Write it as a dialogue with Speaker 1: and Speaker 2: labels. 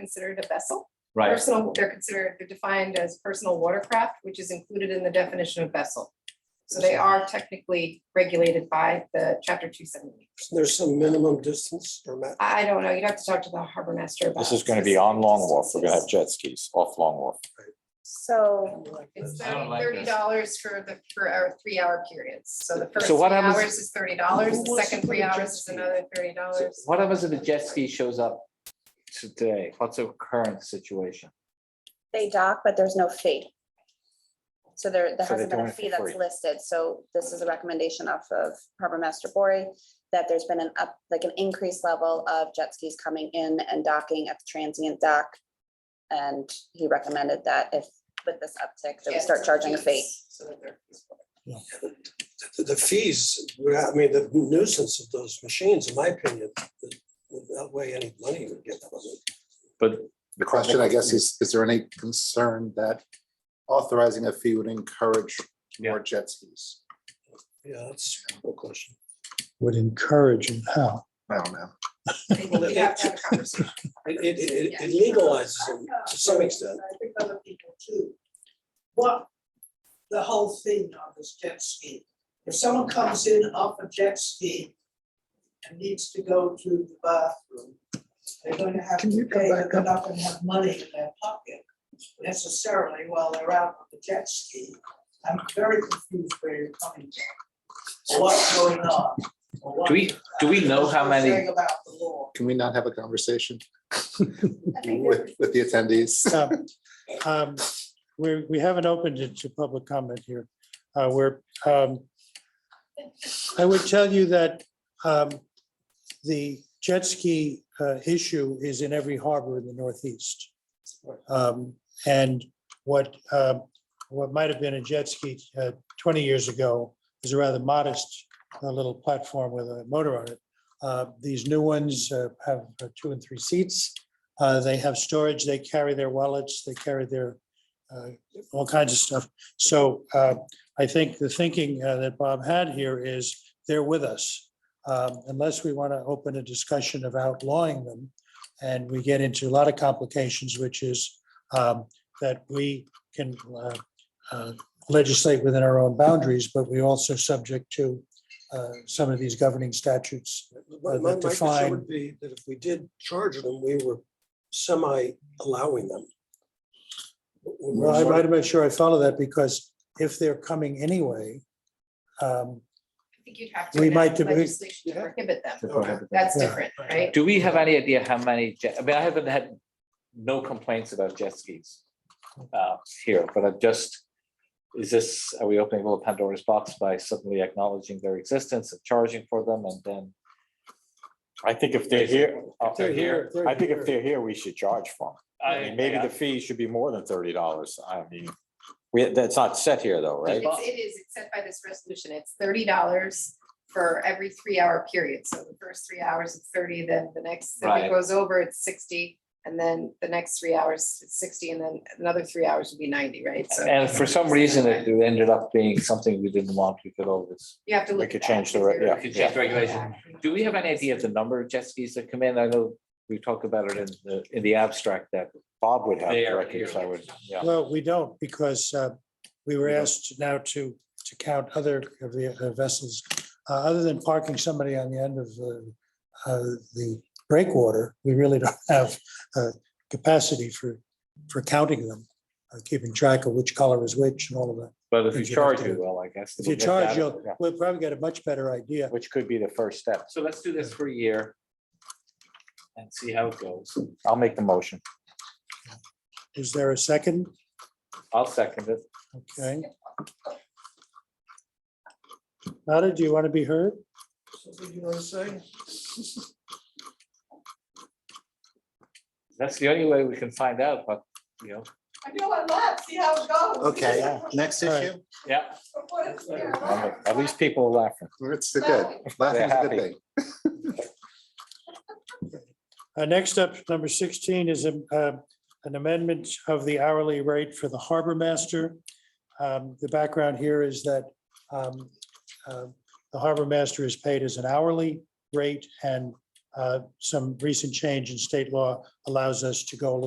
Speaker 1: considered a vessel.
Speaker 2: Right,
Speaker 1: Personal, they're considered, they're defined as personal watercraft, which is included in the definition of vessel. So they are technically regulated by the chapter two seventy.
Speaker 3: There's some minimum distance or ma-
Speaker 1: I I don't know, you'd have to talk to the harbor master about.
Speaker 4: This is gonna be on Long Wharf. We're gonna have jet skis off Long Wharf.
Speaker 5: So,
Speaker 1: It's
Speaker 2: I don't
Speaker 1: thirty
Speaker 2: like this.
Speaker 1: dollars for the, for our three hour periods, so the first
Speaker 2: So
Speaker 1: three
Speaker 2: what happens-
Speaker 1: hours is thirty dollars,
Speaker 3: Who
Speaker 1: the
Speaker 3: wants to
Speaker 1: second
Speaker 3: put
Speaker 1: three
Speaker 3: a jet
Speaker 1: hours is
Speaker 3: ski?
Speaker 1: another thirty
Speaker 2: So
Speaker 1: dollars.
Speaker 2: what happens if a jet ski shows up today? What's the current situation?
Speaker 5: they dock, but there's no fee. So there, there
Speaker 4: So they're
Speaker 5: hasn't been
Speaker 4: doing
Speaker 5: a
Speaker 4: it for
Speaker 5: fee
Speaker 4: free.
Speaker 5: that's listed, so this is a recommendation off of Harbor Master Bori, that there's been an up, like an increased level of jet skis coming in and docking at the transient dock. And he recommended that if, with this uptick, that we start charging a fee.
Speaker 3: the- the fees, I mean, the nuisance of those machines, in my opinion, would outweigh any money we get from it.
Speaker 2: But
Speaker 6: The question, I guess, is, is there any concern that authorizing a fee would encourage more jet skis?
Speaker 3: Yeah, that's a good question.
Speaker 7: would encourage and how.
Speaker 6: I don't know.
Speaker 1: You have to have a conversation.
Speaker 3: It, it, it- it legalizes it to some extent.
Speaker 8: I think other people too. What, the whole thing on this jet ski, if someone comes in off a jet ski and needs to go to the bathroom, they're gonna have
Speaker 7: Can
Speaker 8: to
Speaker 7: you go
Speaker 8: pay,
Speaker 7: back
Speaker 8: they're not gonna have money in their pocket necessarily while they're out on the jet ski. I'm very confused where you're coming from, what's going on. or what-
Speaker 2: do we, do we know how
Speaker 8: What
Speaker 2: many?
Speaker 8: you're saying About the law.
Speaker 6: Can we not have a conversation with, with the attendees?
Speaker 7: Um, um, We, we haven't opened it to public comment here. Uh, We're, um, I would tell you that um, the jet ski uh, issue is in every harbor in the Northeast. Um, And what, um, what might have been a jet ski uh, 20 years ago is a rather modest uh, little platform with a motor on it. Uh, These new ones uh, have uh, two and three seats. Uh, They have storage, they carry their wallets, they carry their, uh, all kinds of stuff. So uh, I think the thinking uh, that Bob had here is they're with us. Um, Unless we want to open a discussion of outlawing them. And we get into a lot of complications, which is um, that we can uh, uh, legislate within our own boundaries, but we also subject to uh, some of these governing statutes.
Speaker 3: My,
Speaker 7: Uh,
Speaker 3: my
Speaker 7: that
Speaker 3: my concern
Speaker 7: define-
Speaker 3: would be that if we did charge them, we were semi allowing them. We were
Speaker 7: Well, I
Speaker 3: sort
Speaker 7: might
Speaker 3: of-
Speaker 7: have made sure I follow that because if they're coming anyway, um,
Speaker 1: I think you'd have to.
Speaker 7: We
Speaker 1: enact
Speaker 7: might debate-
Speaker 1: Legislation to prohibit them, that's
Speaker 7: Yeah.
Speaker 1: different, right?
Speaker 2: Do we have any idea how many, jet- I mean, I haven't had no complaints about jet skis uh, here, but I've just, is this, are we opening a little Pandora's box by suddenly acknowledging their existence and charging for them and then?
Speaker 4: I think if they're here, uh,
Speaker 3: They're here.
Speaker 4: I think if they're here, we should charge for them. I mean, maybe
Speaker 2: I-
Speaker 4: the fee should be more than thirty dollars. I mean, we, that's not set here though, right?
Speaker 1: It's- It is, it's set by this resolution, it's thirty dollars for every three hour period, so the first three hours it's thirty, then the next, if
Speaker 2: Right.
Speaker 1: it goes over, it's sixty. And then the next three hours, it's sixty, and then another three hours would be ninety, right? So
Speaker 2: And for some reason, it ended up being something we didn't want, we could always.
Speaker 1: you have to
Speaker 4: we
Speaker 1: look.
Speaker 4: could
Speaker 1: at that
Speaker 4: change the
Speaker 1: because
Speaker 4: re-
Speaker 1: there-
Speaker 4: yeah,
Speaker 2: We could change yeah. regulation. Do we have any idea of the number of jet skis that come in? I know we talked about it in the, in the abstract that.
Speaker 4: Bob would have
Speaker 2: They
Speaker 4: the
Speaker 2: are
Speaker 4: records,
Speaker 2: here.
Speaker 4: I would, yeah.
Speaker 7: well, we don't because uh, we were
Speaker 4: We don't.
Speaker 7: asked now to, to count other of the uh, vessels. Uh, Other than parking somebody on the end of the, uh, the breakwater, we really don't have uh, capacity for, for counting them, uh, keeping track of which color is which and all of that.
Speaker 2: But if you
Speaker 7: Because you'd have
Speaker 2: charge
Speaker 7: to-
Speaker 2: it, well, I guess.
Speaker 7: If
Speaker 2: we'll
Speaker 7: you
Speaker 4: get
Speaker 7: charge,
Speaker 4: that,
Speaker 7: you'll,
Speaker 4: yeah.
Speaker 7: we'll probably get a much better idea.
Speaker 4: Which could be the first step.
Speaker 2: So let's do this for a year. And see how it goes.
Speaker 4: I'll make the motion.
Speaker 7: Is there a second?
Speaker 2: I'll second it.
Speaker 7: Okay. Nada, do you want to be heard?
Speaker 3: Something you want to say?
Speaker 2: That's the only way we can find out, but, you know,
Speaker 8: I know I left, see how it goes.
Speaker 6: Okay, next
Speaker 7: All right.
Speaker 6: issue.
Speaker 2: yeah.
Speaker 8: Before it's here.
Speaker 4: I'll make- At least people are laughing.
Speaker 6: It's the good. Laughing's a
Speaker 4: happy.
Speaker 6: good thing.
Speaker 7: Uh, Next up, number 16 is um, uh, an amendment of the hourly rate for the harbor master. Um, The background here is that um, uh, the harbor master is paid as an hourly rate and um, uh, some recent change in state law allows us to go a little